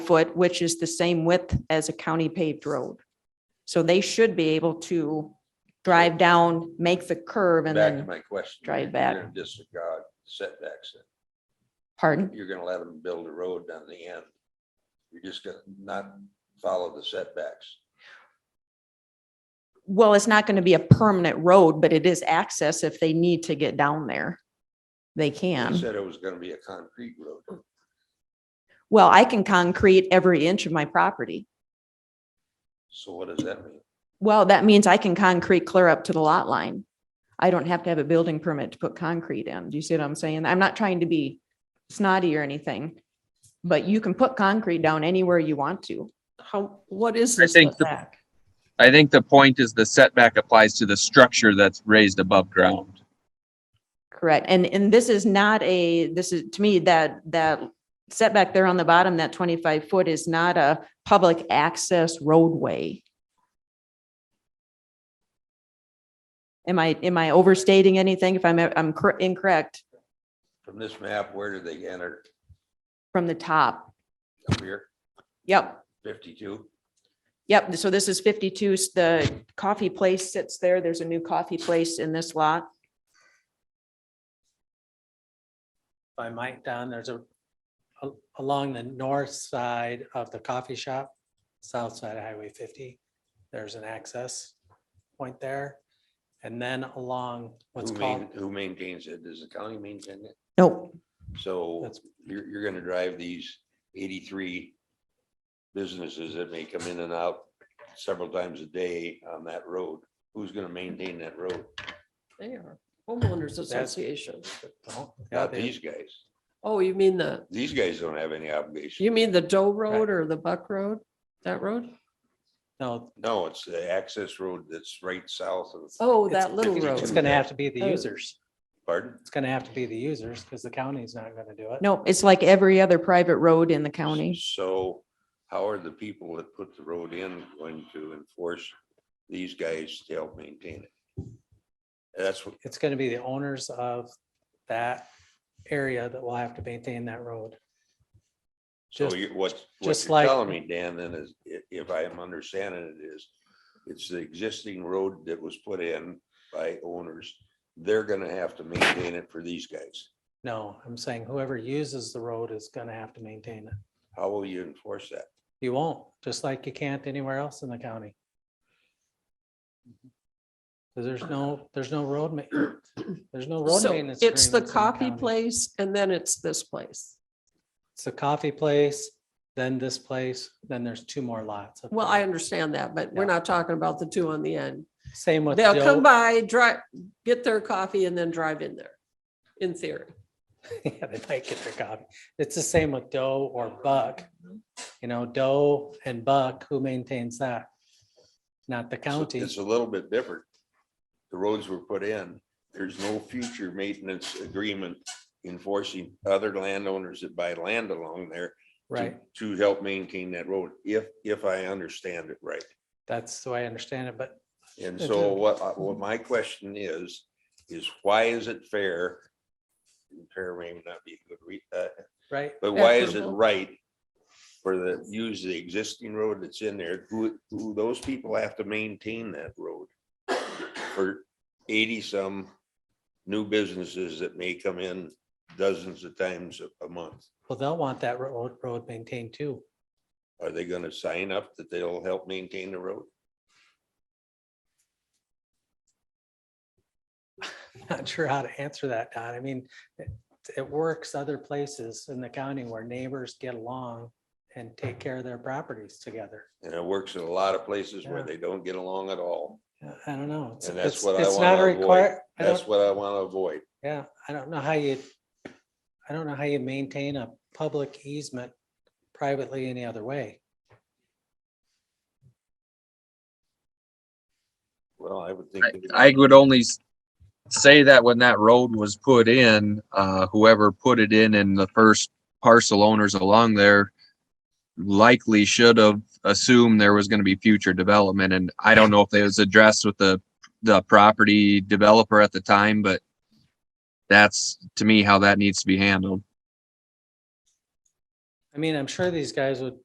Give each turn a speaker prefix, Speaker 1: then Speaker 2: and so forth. Speaker 1: foot, which is the same width as a county paved road. So they should be able to drive down, make the curve and
Speaker 2: Back to
Speaker 1: then,
Speaker 2: my question.
Speaker 1: drive
Speaker 2: You're
Speaker 1: back.
Speaker 2: gonna Disregard setbacks. then.
Speaker 1: pardon?
Speaker 2: You're gonna let them build a road down the end. You're just gonna not follow the setbacks.
Speaker 1: Well, it's not going to be a permanent road, but it is access if they need to get down there. They
Speaker 2: You
Speaker 1: can.
Speaker 2: said it was gonna be a concrete road.
Speaker 1: Well, I can concrete every inch of my property.
Speaker 2: So what does that mean?
Speaker 1: Well, that means I can concrete clear up to the lot line. I don't have to have a building permit to put concrete in. Do you see what I'm saying? I'm not trying to be snotty or anything. But you can put concrete down anywhere you want to.
Speaker 3: How, what is
Speaker 4: I
Speaker 3: this
Speaker 4: think the-
Speaker 3: setback?
Speaker 4: I think the point is the setback applies to the structure that's raised above ground.
Speaker 1: Correct. And, and this is not a, this is, to me, that, that setback there on the bottom, that twenty-five foot is not a public access roadway. Am I, am I overstating anything if I'm, I'm cor- incorrect
Speaker 2: From this map, where do they enter?
Speaker 1: from the top?
Speaker 2: Up here,
Speaker 1: Yep,
Speaker 2: fifty-two?
Speaker 1: yep. So this is fifty-two, the coffee place sits there. There's a new coffee place in this lot.
Speaker 5: by Mike Don, there's a, a- along the north side of the coffee shop, south side of Highway fifty, there's an access point there. And then along what's
Speaker 2: Who
Speaker 5: called,
Speaker 2: main, who maintains it? Does the county maintain it?
Speaker 1: Nope.
Speaker 2: So
Speaker 5: That's-
Speaker 2: you're, you're gonna drive these eighty-three businesses that may come in and out several times a day on that road. Who's gonna maintain that road?
Speaker 3: They are homeowners association.
Speaker 5: oh, yeah,
Speaker 2: Not
Speaker 5: they-
Speaker 2: these guys.
Speaker 3: Oh, you mean the,
Speaker 2: These guys don't have any obligation.
Speaker 3: you mean the Doe Road or the Buck Road? That road?
Speaker 5: no,
Speaker 2: No, it's the access road that's right south of,
Speaker 3: Oh,
Speaker 5: It's-
Speaker 3: that little
Speaker 2: it's-
Speaker 5: it's
Speaker 3: road.
Speaker 5: gonna have to be the
Speaker 3: Oh.
Speaker 5: users.
Speaker 2: pardon?
Speaker 5: It's gonna have to be the users because the county's not gonna do it.
Speaker 1: Nope. It's like every other private road in the county.
Speaker 2: So how are the people that put the road in going to enforce these guys to help maintain it? That's what,
Speaker 5: It's gonna be the owners of that area that will have to maintain that road.
Speaker 2: so
Speaker 5: Just-
Speaker 2: you, what, what
Speaker 5: just
Speaker 2: you're
Speaker 5: like-
Speaker 2: telling me, Dan, then is, i- if I am understanding it is, it's the existing road that was put in by owners. They're gonna have to maintain it for these guys.
Speaker 5: No, I'm saying whoever uses the road is gonna have to maintain it.
Speaker 2: How will you enforce that?
Speaker 5: You won't, just like you can't anywhere else in the county. 'Cause there's no, there's no road ma- there's no road
Speaker 3: So
Speaker 5: maintenance.
Speaker 3: it's the
Speaker 5: agreements in
Speaker 3: coffee
Speaker 5: county.
Speaker 3: place and then it's this place.
Speaker 5: It's the coffee place, then this place, then there's two more lots. up
Speaker 3: Well,
Speaker 5: there.
Speaker 3: I understand that, but we're
Speaker 5: Yeah.
Speaker 3: not talking about the two on the end.
Speaker 5: Same with.
Speaker 3: They'll
Speaker 5: Doe-
Speaker 3: come by, drive, get their coffee and then drive in there, in theory.
Speaker 5: Yeah, they might get their coffee. It's the same with Doe or Buck. You know, Doe and Buck, who maintains that? Not the
Speaker 2: So
Speaker 5: county.
Speaker 2: It's a little bit different. The roads were put in. There's no future maintenance agreement enforcing other landowners that buy land along there. to-
Speaker 5: Right,
Speaker 2: To help maintain that road, if, if I understand it right.
Speaker 5: that's the way I understand it, but
Speaker 2: And
Speaker 5: That's
Speaker 2: so
Speaker 5: it.
Speaker 2: what, I- what my question is, is why is it fair? and Fair may not be a good, re- uh,
Speaker 5: right,
Speaker 2: but why is it
Speaker 3: Equitable.
Speaker 2: right? For the, use the existing road that's in there, who, who, those people have to maintain that road. For eighty some new businesses that may come in dozens of times a, a month.
Speaker 5: well, they'll want that road, road maintained too.
Speaker 2: Are they gonna sign up that they'll help maintain the road?
Speaker 5: not sure how to answer that, Don. I mean, it, it works other places in the county where neighbors get along and take care of their properties together.
Speaker 2: And it works in a lot of places where
Speaker 5: Yeah.
Speaker 2: they don't get along at all.
Speaker 5: Uh, I don't know. It's-
Speaker 2: And that's
Speaker 5: it's-
Speaker 2: what I
Speaker 5: it's not a
Speaker 2: wanna avoid.
Speaker 5: require- I
Speaker 2: That's
Speaker 5: don't,
Speaker 2: what I wanna avoid.
Speaker 5: yeah, I don't know how you, I don't know how you maintain a public easement privately any other way.
Speaker 2: Well, I would think.
Speaker 4: I, I would only s- say that when that road was put in, uh, whoever put it in and the first parcel owners along there likely should have assumed there was going to be future development. And I don't know if it was addressed with the, the property developer at the time, but that's to me how that needs to be handled.
Speaker 5: I mean, I'm sure these guys would